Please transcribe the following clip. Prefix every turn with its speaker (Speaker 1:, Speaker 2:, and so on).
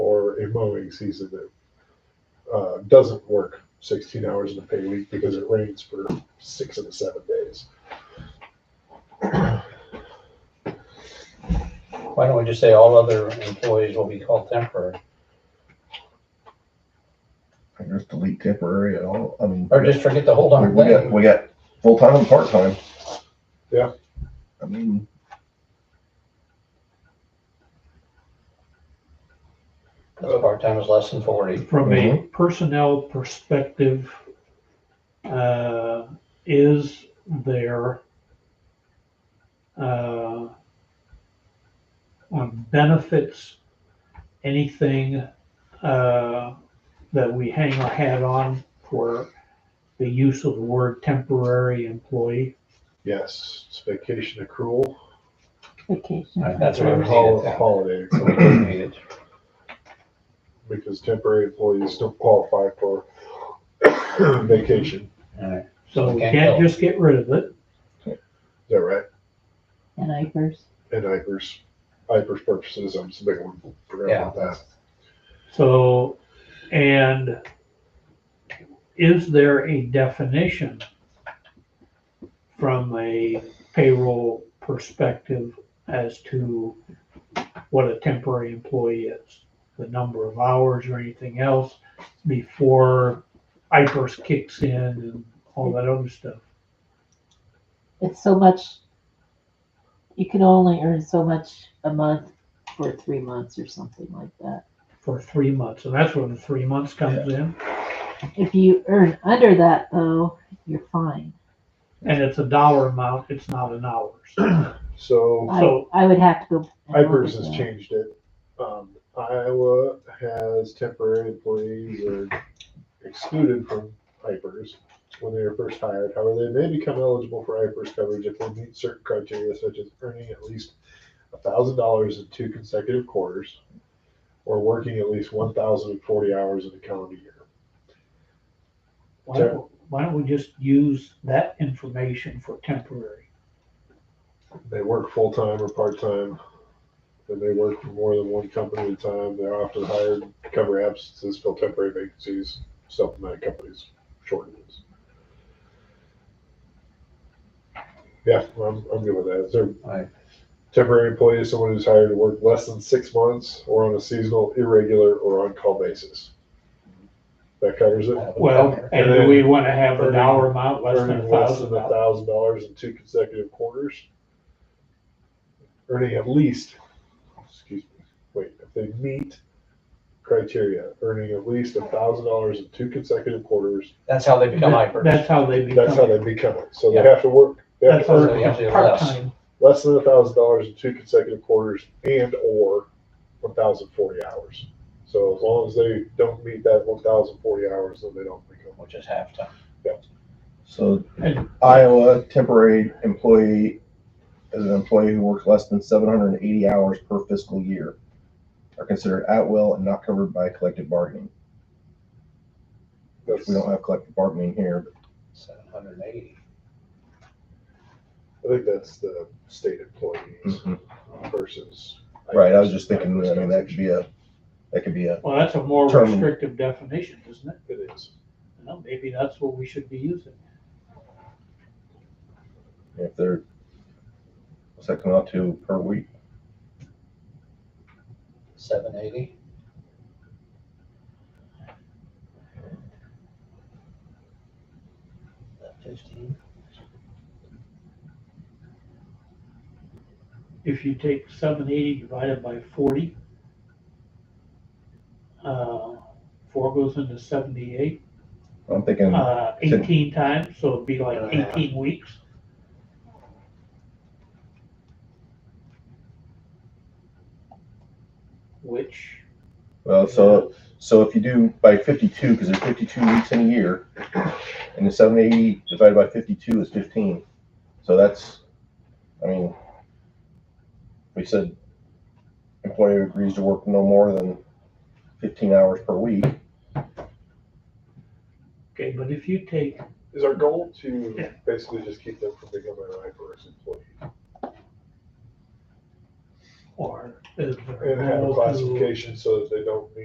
Speaker 1: mowing season that uh, doesn't work 16 hours in a pay week because it rains for six of the seven days.
Speaker 2: Why don't we just say all other employees will be called temporary,
Speaker 3: I just delete temporary at all. I mean,
Speaker 2: or just forget the whole
Speaker 3: we,
Speaker 2: darn
Speaker 3: we got
Speaker 2: thing?
Speaker 3: we got full time and part time.
Speaker 1: Yeah.
Speaker 3: I mean,
Speaker 2: Because part-time is less than forty.
Speaker 4: From a personnel perspective, uh, is there uh, on benefits, anything uh, that we hang our hat on for the use of the word temporary employee?
Speaker 1: Yes, it's vacation accrual,
Speaker 5: Vacation.
Speaker 2: Right, That's where we need
Speaker 1: hol-
Speaker 2: it.
Speaker 1: holiday
Speaker 2: That's where
Speaker 1: accrual,
Speaker 2: we need it.
Speaker 1: because temporary employees don't qualify for vacation.
Speaker 2: All right.
Speaker 4: So we
Speaker 2: Can't
Speaker 4: can't
Speaker 2: go.
Speaker 4: just get rid of it.
Speaker 1: Is that right?
Speaker 5: And Ipers.
Speaker 1: And IFRS, IFRS purposes, I'm just a big one. forgot about that.
Speaker 4: So, and is there a definition from a payroll perspective as to what a temporary employee is? The number of hours or anything else before IPERS kicks in and all that other stuff?
Speaker 5: It's so much, you can only earn so much a month for three months or something like that.
Speaker 4: For three months, and that's where the three months comes in,
Speaker 5: If you earn under that though, you're fine.
Speaker 4: and it's a dollar amount, it's not an hours.
Speaker 1: So
Speaker 5: I,
Speaker 4: So-
Speaker 5: I would have to go. and look
Speaker 1: IFRS
Speaker 5: at
Speaker 1: has
Speaker 5: that.
Speaker 1: changed it. Um, Iowa has temporary employees are excluded from IFRS when they are first hired. However, they may become eligible for IFRS coverage if they meet certain criteria such as earning at least thousand dollars in two consecutive quarters or working at least one thousand and forty hours in a calendar year.
Speaker 4: Why don't, why don't we just use that information for temporary?
Speaker 1: they work full time or part time, and they work for more than one company at a time. They're often hired to cover absences, fill temporary vacancies, supplement companies' shortages. Yeah, I'm, I'm good with that. Is there
Speaker 2: Right.
Speaker 1: temporary employee is someone who's hired to work less than six months or on a seasonal, irregular, or on call basis? That covers it.
Speaker 4: Uh, Well, and do we want to have an hour amount less than a
Speaker 1: Earning less
Speaker 4: thousand
Speaker 1: than a
Speaker 4: dollars?
Speaker 1: thousand dollars in two consecutive quarters. Earning at least, excuse me, wait, if they meet criteria, earning at least a thousand dollars in two consecutive quarters,
Speaker 2: That's how they become hyper.
Speaker 4: That's how they
Speaker 1: that's how they
Speaker 4: become,
Speaker 1: become it. So they
Speaker 2: Yeah.
Speaker 1: have to work, they have
Speaker 4: that's
Speaker 1: to earn
Speaker 2: they have to
Speaker 4: our
Speaker 2: do
Speaker 4: part-time.
Speaker 1: less than a thousand dollars in two consecutive quarters and or one thousand forty hours. So as long as they don't meet that one thousand forty hours, then they don't become.
Speaker 2: Which is half time.
Speaker 3: so
Speaker 4: And-
Speaker 3: Iowa temporary employee is an employee who works less than 780 hours per fiscal year are considered at will and not covered by collective bargaining.
Speaker 1: That's,
Speaker 3: We don't have collective bargaining here.
Speaker 2: Seven hundred and eighty.
Speaker 1: I think that's the state employees.
Speaker 3: but-
Speaker 1: versus.
Speaker 3: Right, I was just thinking, I mean, that could be a, that could be a,
Speaker 4: Well, that's a more
Speaker 3: Term.
Speaker 4: restrictive definition, isn't it?
Speaker 1: It is.
Speaker 4: You know, maybe that's what we should be using.
Speaker 3: if they're, what's that come out to per week?
Speaker 2: Seven eighty. Fifteen.
Speaker 4: If you take seven eighty divided by forty, uh, four goes into seventy-eight,
Speaker 3: I'm thinking,
Speaker 4: uh, eighteen times, so it'd be like
Speaker 2: Yeah.
Speaker 4: eighteen weeks. Which
Speaker 3: well, so, so if you do by fifty-two, because there's fifty-two weeks in a year, and the seven eighty divided by fifty-two is fifteen, so that's, I mean, we said employee agrees to work no more than fifteen hours per week,
Speaker 4: Okay, but if you take,
Speaker 1: Is our goal to
Speaker 4: Yeah.
Speaker 1: basically just keep them from becoming an IFRS employee
Speaker 4: or is there
Speaker 1: and have a
Speaker 4: no to- uh,
Speaker 1: classification so that they don't meet